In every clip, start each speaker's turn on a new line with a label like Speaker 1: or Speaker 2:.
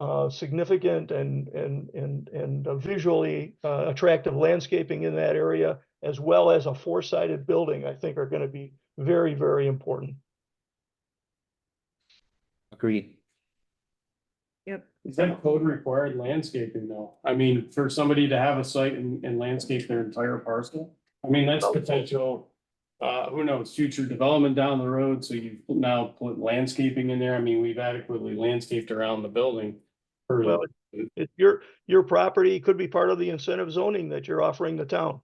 Speaker 1: uh, significant and, and, and, and uh, visually, uh, attractive landscaping in that area, as well as a four-sided building, I think are gonna be very, very important.
Speaker 2: Agreed.
Speaker 3: Yep.
Speaker 4: Is that code required landscaping though? I mean, for somebody to have a site and, and landscape their entire parcel? I mean, that's potential, uh, who knows, future development down the road, so you've now put landscaping in there. I mean, we've adequately landscaped around the building. for-
Speaker 1: Well, It, your, your property could be part of the incentive zoning that you're offering the town.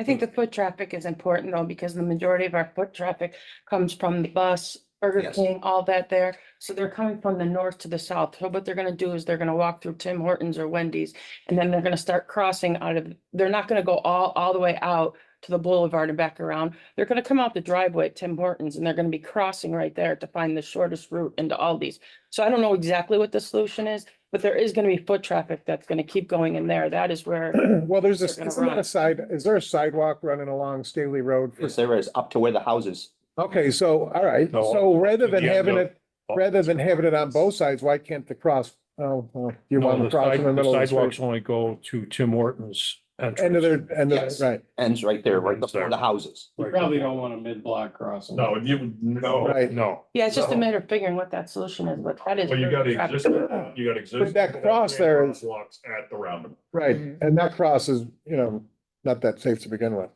Speaker 3: I think the foot traffic is important though, because the majority of our foot traffic comes from the bus, Burger
Speaker 2: Yes.
Speaker 3: King, all that there. So they're coming from the north to the south. So what they're gonna do is they're gonna walk through Tim Hortons or Wendy's. And then they're gonna start crossing out of, they're not gonna go all, all the way out to the boulevard and back around. They're gonna come out the driveway at Tim Hortons and they're gonna be crossing right there to find the shortest route into Aldi's. So I don't know exactly what the solution is, but there is gonna be foot traffic that's gonna keep going in there. That is where.
Speaker 5: Well, there's
Speaker 3: They're
Speaker 5: a,
Speaker 3: gonna
Speaker 5: isn't that
Speaker 3: run.
Speaker 5: a side, is there a sidewalk running along Staley Road? for-
Speaker 2: Yes, there is, up to where the houses.
Speaker 5: Okay, so, all right,
Speaker 6: No.
Speaker 5: so rather than
Speaker 6: Yeah,
Speaker 5: having
Speaker 6: no. Oh.
Speaker 5: it, rather than having it on both sides, why can't the cross? Oh, well, you
Speaker 6: No,
Speaker 5: want to
Speaker 6: the
Speaker 5: cross
Speaker 6: side-
Speaker 5: in the
Speaker 6: the
Speaker 5: middle of the
Speaker 6: Sidewalks
Speaker 5: street.
Speaker 6: only go to Tim Hortons.
Speaker 5: End of their, end of,
Speaker 2: Yes.
Speaker 5: their- right,
Speaker 2: Ends right there, right
Speaker 6: Ends
Speaker 2: before
Speaker 6: there.
Speaker 2: the houses.
Speaker 4: You probably don't want a mid-block crossing.
Speaker 6: No, you, no,
Speaker 5: Right.
Speaker 6: no.
Speaker 3: Yeah, it's just a
Speaker 6: No.
Speaker 3: matter of figuring what that solution is, but that is.
Speaker 6: Well, you gotta
Speaker 3: traffic.
Speaker 6: exist, you gotta exist.
Speaker 5: that cross there is-
Speaker 6: Crosswalks at the roundabout.
Speaker 5: right. And that cross is, you know, not that safe to begin with,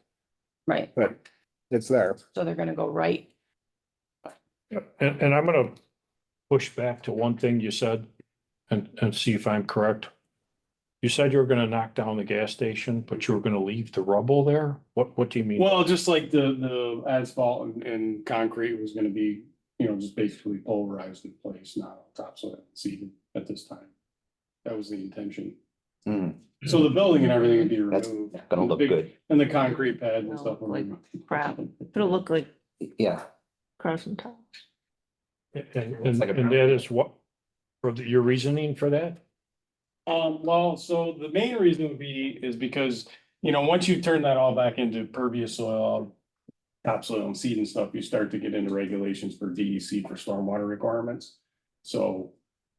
Speaker 3: Right,
Speaker 5: but it's there.
Speaker 3: so they're gonna go right.
Speaker 6: And, and I'm gonna push back to one thing you said and, and see if I'm correct. You said you were gonna knock down the gas station, but you were gonna leave the rubble there? What, what do you mean?
Speaker 4: Well, just like the, the asphalt and, and concrete was gonna be, you know, just basically pulverized in place, not topsoil seeded at this time. That was the intention.
Speaker 2: Hmm,
Speaker 4: So the building and everything would be
Speaker 2: That's
Speaker 4: removed.
Speaker 2: gonna
Speaker 4: The
Speaker 2: look
Speaker 4: big-
Speaker 2: good.
Speaker 4: And the concrete pad and
Speaker 7: Well,
Speaker 4: stuff.
Speaker 7: like crap. It'll look like
Speaker 2: Yeah,
Speaker 7: cars and towns.
Speaker 6: And, and and that is what, for the- your reasoning for that?
Speaker 4: Um, well, so the main reason would be is because, you know, once you turn that all back into pervious soil. Topsoil and seed and stuff, you start to get into regulations for DEC for stormwater requirements. So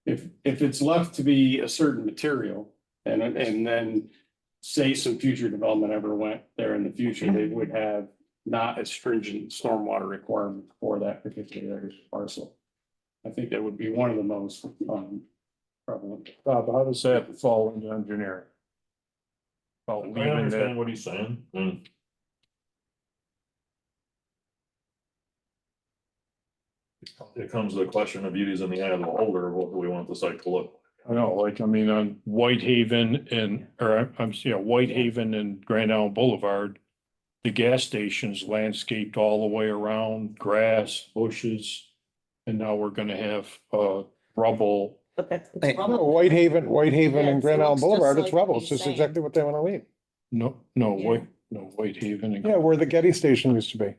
Speaker 4: if, if it's left to be a certain material and, and then. Say some future development ever went there in the future, they would have not as stringent stormwater requirement for that particular parcel. I think that would be one of the most, um, prevalent.
Speaker 6: Bob, how does that fall into engineering? About
Speaker 8: I
Speaker 6: leaving
Speaker 8: understand
Speaker 6: that,
Speaker 8: what he's saying. Mm. It comes to the question of beauties in the eye of the beholder, what do we want the site to look?
Speaker 6: I know, like, I mean, on Whitehaven and, or I'm, yeah, Whitehaven and Grand Island Boulevard. The gas station's landscaped all the way around, grass, bushes, and now we're gonna have, uh, rubble.
Speaker 7: But that's.
Speaker 2: Hey,
Speaker 5: No, Whitehaven, Whitehaven
Speaker 7: Yeah,
Speaker 5: and
Speaker 7: it's-
Speaker 5: Grand
Speaker 7: it
Speaker 5: Island
Speaker 7: looks just
Speaker 5: Boulevard, it's
Speaker 7: like
Speaker 5: rubble.
Speaker 7: what
Speaker 5: It's
Speaker 7: he's
Speaker 5: just
Speaker 7: saying.
Speaker 5: exactly what they want to leave.
Speaker 6: No, no,
Speaker 7: Yeah.
Speaker 6: White, no, Whitehaven and.
Speaker 5: Yeah, where the Getty station used to be.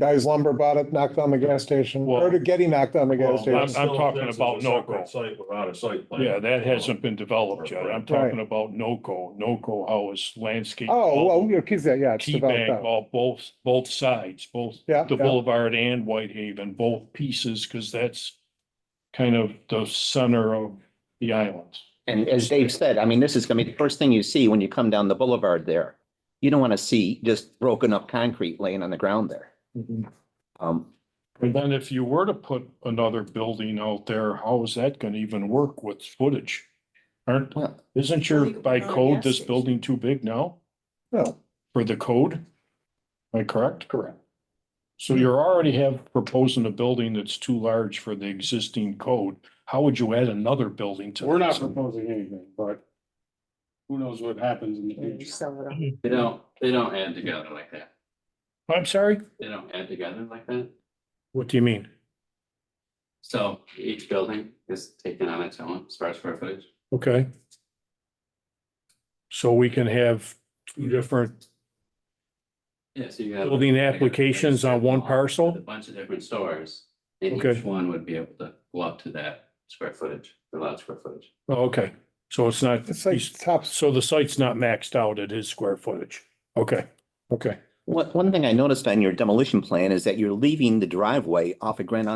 Speaker 5: Guys lumber bought it, knocked on the gas station, or
Speaker 6: Well-
Speaker 5: the Getty knocked on the
Speaker 6: Well,
Speaker 5: gas station.
Speaker 6: I'm-
Speaker 8: Still,
Speaker 6: talking
Speaker 8: this is
Speaker 6: about
Speaker 8: a
Speaker 6: no
Speaker 8: separate
Speaker 6: go.
Speaker 8: Site without a site plan.
Speaker 6: Yeah, that hasn't been developed yet. I'm
Speaker 8: uh, Right.
Speaker 6: talking about NOCO, NOCO, how it's landscaped.
Speaker 5: Oh,
Speaker 6: all
Speaker 5: well, you kids, yeah, yeah, it's
Speaker 6: Key
Speaker 5: developed
Speaker 6: bank,
Speaker 5: out.
Speaker 6: all both, both sides, both
Speaker 5: Yeah,
Speaker 6: the
Speaker 5: yeah.
Speaker 6: Boulevard and Whitehaven, both pieces, because that's kind of the center of the island.
Speaker 2: and as Dave said, I mean, this is gonna be the first thing you see when you come down the boulevard there. You don't wanna see just broken up concrete laying on the ground there. Um,
Speaker 6: And then if you were to put another building out there, how is that gonna even work with footage? Aren't,
Speaker 2: well,
Speaker 6: isn't your,
Speaker 7: Well, you
Speaker 6: by
Speaker 7: can put a
Speaker 6: code,
Speaker 7: gas
Speaker 6: this
Speaker 7: station.
Speaker 6: building too big now?
Speaker 5: No.
Speaker 6: For the code? Am I correct?
Speaker 4: Correct.
Speaker 6: So you're already have proposing a building that's too large for the existing code. How would you add another building to?
Speaker 4: We're not
Speaker 6: this?
Speaker 4: proposing anything, but who knows what happens in the future.
Speaker 7: Sell it on.
Speaker 9: They don't, they don't add together like that.
Speaker 6: I'm sorry?
Speaker 9: They don't add together like that.
Speaker 6: What do you mean?
Speaker 9: So each building is taken on its own as far as square footage.
Speaker 6: Okay. So we can have two different,
Speaker 9: Yeah, so you have.
Speaker 6: Building applications on one parcel?
Speaker 9: With A bunch of different stores, and
Speaker 6: Okay.
Speaker 9: each one would be able to go up to that square footage, the allowed square footage.
Speaker 6: oh, okay, so it's not,
Speaker 5: It's like top,
Speaker 6: so the site's not maxed out at his square footage. Okay, okay.
Speaker 2: one, one thing I noticed on your demolition plan is that you're leaving the driveway off of Grand